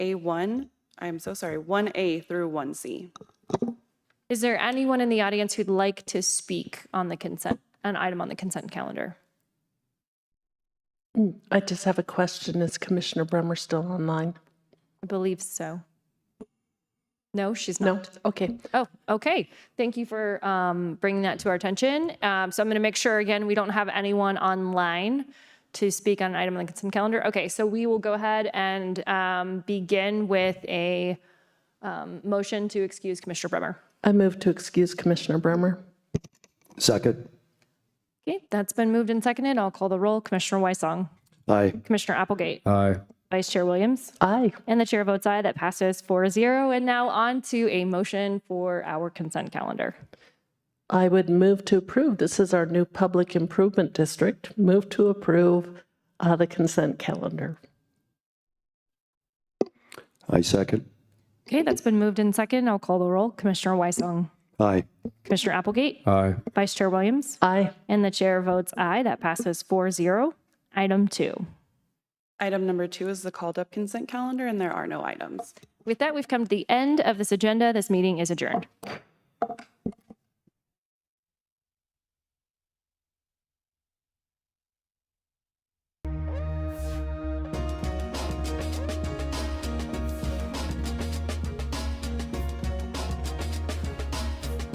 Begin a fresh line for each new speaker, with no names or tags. A1, I'm so sorry, 1A through 1C.
Is there anyone in the audience who'd like to speak on the consent, an item on the consent calendar?
I just have a question. Is Commissioner Bremer still online?
I believe so. No, she's not.
No? Okay.
Oh, okay. Thank you for um, bringing that to our attention. Um, so I'm going to make sure again we don't have anyone online to speak on an item on the consent calendar. Okay, so we will go ahead and um, begin with a um, motion to excuse Commissioner Bremer.
I move to excuse Commissioner Bremer.
Second.
Okay, that's been moved and seconded. I'll call the roll. Commissioner Weisong,
Aye.
Commissioner Applegate,
Aye.
Vice Chair Williams,
Aye.
and the chair votes aye. That passes 4-0. And now on to a motion for our consent calendar.
I would move to approve. This is our new public improvement district. Move to approve uh, the consent calendar.
I second.
Okay, that's been moved and seconded. I'll call the roll. Commissioner Weisong,
Aye.
Commissioner Applegate,
Aye.
Vice Chair Williams,
Aye.
and the chair votes aye. That passes 4-0. Item two.
Item number two is the called up consent calendar, and there are no items.
With that, we've come to the end of this agenda. This meeting is adjourned.